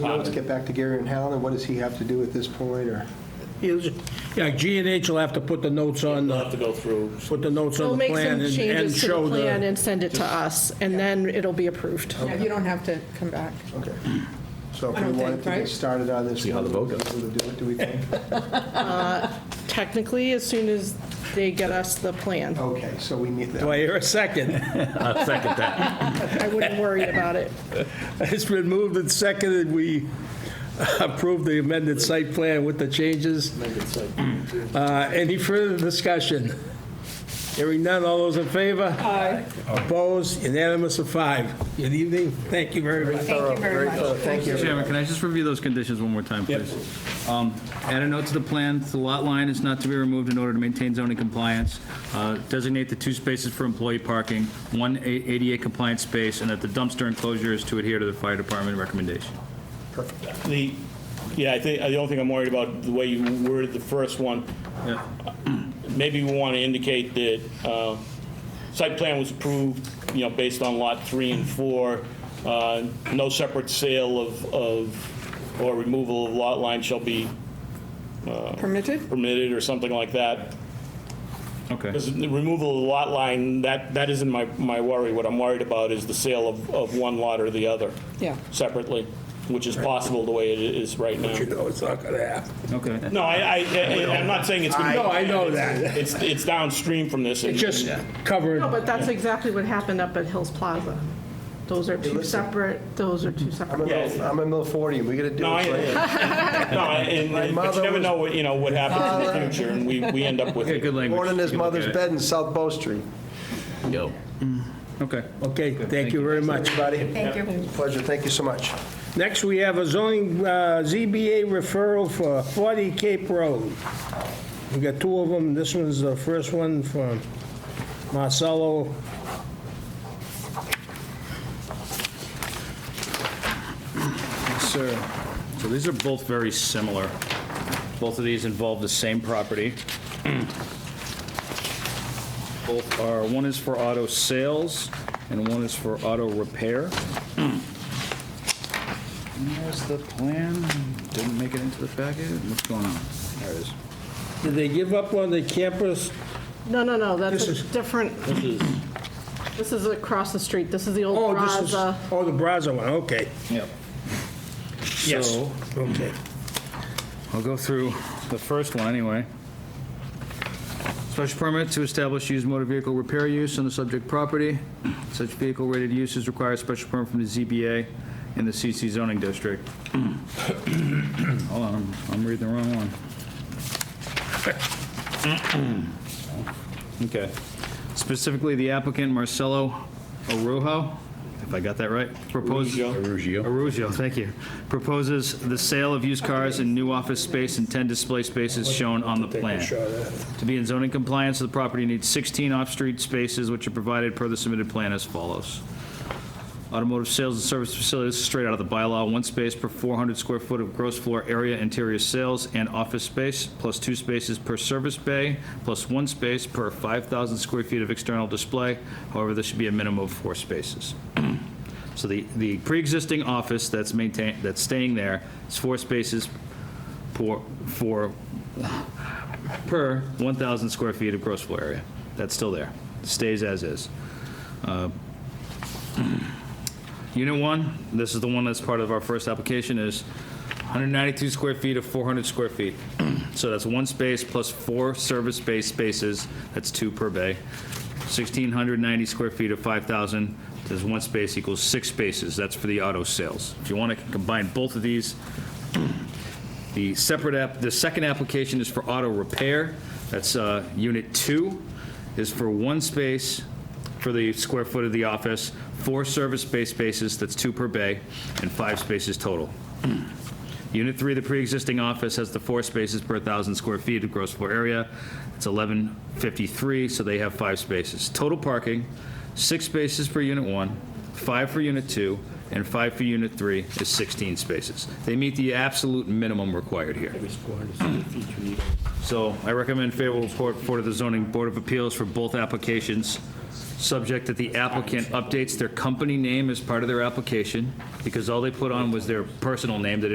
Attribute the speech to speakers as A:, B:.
A: Well, Let's get back to Gary and Helen, and what does he have to do at this point, or?
B: Yeah, G and H will have to put the notes on,
C: We'll
B: the
C: have to go through.
B: put the notes
D: We'll
B: on the
D: make some
B: plan and- and
D: changes to
B: show
D: the plan
B: the,
D: and send it to us, and then it'll be approved.
E: Yeah, you don't have to come back.
A: Okay. So if
E: I
A: we
E: don't
A: wanted
E: think,
A: to get
E: right?
A: started on this.
F: See how the vote
A: we'll be
F: goes.
A: able to do it, do we think?
D: Technically, as soon as they get us the plan.
A: Okay, so we need
B: do
A: that.
B: I hear a second?
F: I'll second that.
D: I wouldn't worry about it.
B: It's been moved and seconded, we approve the amended site plan with the changes. Uh, Any further discussion? Hearing none, all those in favor? Aye. Opposed, unanimous of five. Good evening, thank you very much.
E: Thank you very much.
A: Thank you.
G: Chairman, can I just review those conditions one more time, please? Um, Add a note to the plan, the lot line is not to be removed in order to maintain zoning compliance. Uh, Designate the two spaces for employee parking, one A- ADA compliant space, and that the dumpster enclosure is to adhere to the fire department recommendation.
C: The, yeah, I think, the only thing I'm worried about, the way you worded the first one,
G: Yeah.
C: maybe we want to indicate that uh, site plan was approved, you know, based on lot three and four. Uh, No separate sale of, of, or removal of lot line shall be
E: Permitted?
C: permitted or something like that.
G: Okay.
C: Because the removal of the lot line, that, that isn't my, my worry. What I'm worried about is the sale of, of one lot or the other
E: Yeah.
C: separately, which is possible the way it is right now.
B: You know it's not gonna happen.
G: Okay.
C: No, I, I, I- I'm not saying it's gonna be.
B: No, I know that.
C: It's, it's downstream from this. and-
B: It's just covering,
D: No, but that's exactly what happened up at Hills Plaza. Those are two
A: listen.
D: separate, those are two separate.
A: I'm in middle- I'm in middle 40, we gotta do
C: No, I,
A: it. right?
C: no, and, and- but
A: mother
C: you never
A: was-
C: know what, you know, what happens in the future, and we, we end up with
G: Okay, good
C: it.
G: language.
A: Born in his
G: You can look at
A: mother's
G: it.
A: bed in South Bow Street.
F: Yo.
G: Okay.
B: okay, thank you very much.
A: Everybody,
E: Thank you.
A: pleasure, thank you so much.
B: Next, we have a zoning uh, ZBA referral for 40 Cape Road. We got two of them, this one's the first one from Marcelo.
G: Sir, so these are both very similar. Both of these involve the same property. Both are, one is for auto sales and one is for auto repair. And There's the plan. Didn't make it into the packet. What's going on? There it is.
B: Did they give up on the campus?
D: No, no, no, that's
B: This
D: a
B: is-
D: different,
C: This is-
D: this is across the street. This is the old
B: Oh, this is,
D: Plaza.
B: oh, the Brazza one, okay.
G: Yep.
B: Yes,
G: So-
B: okay.
G: I'll go through the first one anyway. Special permit to establish used motor vehicle repair use on the subject property. Such vehicle rated uses require a special permit from the ZBA in the CC zoning district. Hold on, I'm- I'm reading the wrong one. Okay. Specifically, the applicant Marcelo Arujo, if I got that right, proposes.
F: Arugio.
G: Arugio, thank you. Proposes the sale of used cars and new office space and 10 display spaces shown on the plan. To be in zoning compliance, the property needs 16 off-street spaces, which are provided per the submitted plan as follows. Automotive sales and service facilities, straight out of the bylaw, one space per 400 square foot of gross floor area, interior sales and office space, plus two spaces per service bay, plus one space per 5,000 square feet of external display. However, there should be a minimum of four spaces. So the, the pre-existing office that's maintained, that's staying there is four spaces for, for, per 1,000 square feet of gross floor area. That's still there, stays as is. Uh, Unit one, this is the one that's part of our first application, is 192 square feet of 400 square feet. So that's one space plus four service-based spaces, that's two per bay. 1,690 square feet of 5,000, there's one space equals six spaces, that's for the auto sales. If you want to combine both of these, the separate app, the second application is for auto repair. That's uh, Unit 2, is for one space for the square foot of the office, four service-based spaces, that's two per bay, and five spaces total. Hmm. Unit 3, the pre-existing office, has the four spaces per 1,000 square feet of gross floor area. It's 1153, so they have five spaces. Total parking, six spaces for Unit 1, five for Unit 2, and five for Unit 3 is 16 spaces. They meet the absolute minimum required here. So I recommend favorable report for the zoning board of appeals for both applications. subject that the applicant updates their company name as part of their application, because all they put on was their personal name, they didn't